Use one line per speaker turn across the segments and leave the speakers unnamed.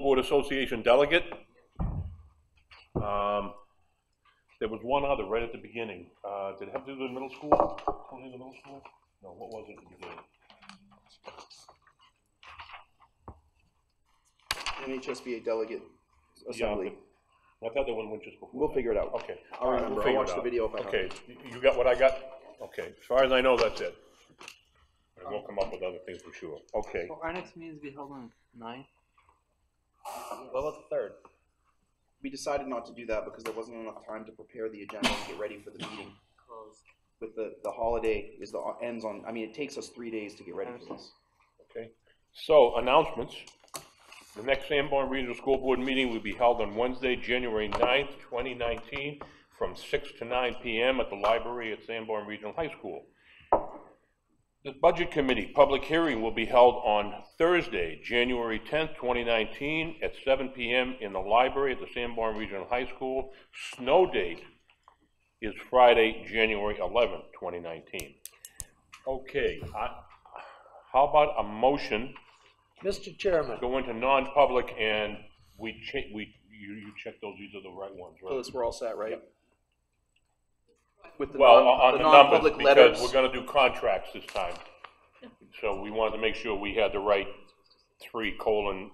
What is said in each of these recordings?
Board Association delegate. Um, There was one other right at the beginning. Uh, Did it have to do with the middle school? Only the middle school? No, what was it? at the beginning?
NHSBA delegate
Yeah,
assembly.
but I thought that one went just before.
We'll
that.
figure it out.
Okay.
I'll
All right, we'll
remember. I'll
figure
watch
it
the
out.
video if I have
Okay, you you got what I got? Okay, as far as I know, that's it. And we'll come up with other things, I'm sure. Okay.
Well, our next meeting is be held on nine.
What about the third?
We decided not to do that because there wasn't enough time to prepare the agenda and get ready for the meeting. With the, the holiday is the, ends on, I mean, it takes us three days to get ready for this.
Okay, so announcements. The next Sanborn Regional School Board meeting will be held on Wednesday, January 9th, 2019, from 6 to 9 PM at the library at Sanborn Regional High School. The Budget Committee public hearing will be held on Thursday, January 10th, 2019, at 7 PM in the library at the Sanborn Regional High School. Snow date is Friday, January 11th, 2019. Okay, I- how about a motion,
Mr. Chairman,
go into non-public and we check, we, you, you check those, these are the right ones, right?
we're all set, right? With the
Well,
non,
on
the
the numbers,
non-public letters.
because we're gonna do contracts this time. So we wanted to make sure we had the right three colon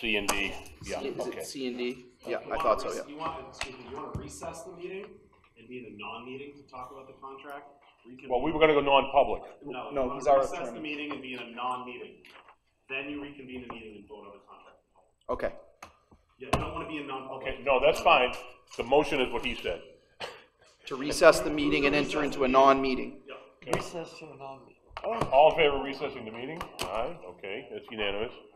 C and D, yeah,
Is
okay.
it C and D? Yeah,
You
I
wanna
thought so,
rec-
yeah.
You want, excuse me, you want to recess the meeting and be in a non-meeting to talk about the contract? Recon-
Well, we were gonna go non-public,
No,
no,
you want
he's
to
our
recess the
chairman.
meeting and be in a non-meeting. Then you reconvene the meeting and vote on the contract.
Okay,
Yeah, you don't want to be in
okay,
non-public.
no, that's fine, the motion is what he said.
to recess the meeting and enter into a non-meeting.
Recess to a non-meeting.
All in favor of recessing the meeting? Aye, okay, that's unanimous.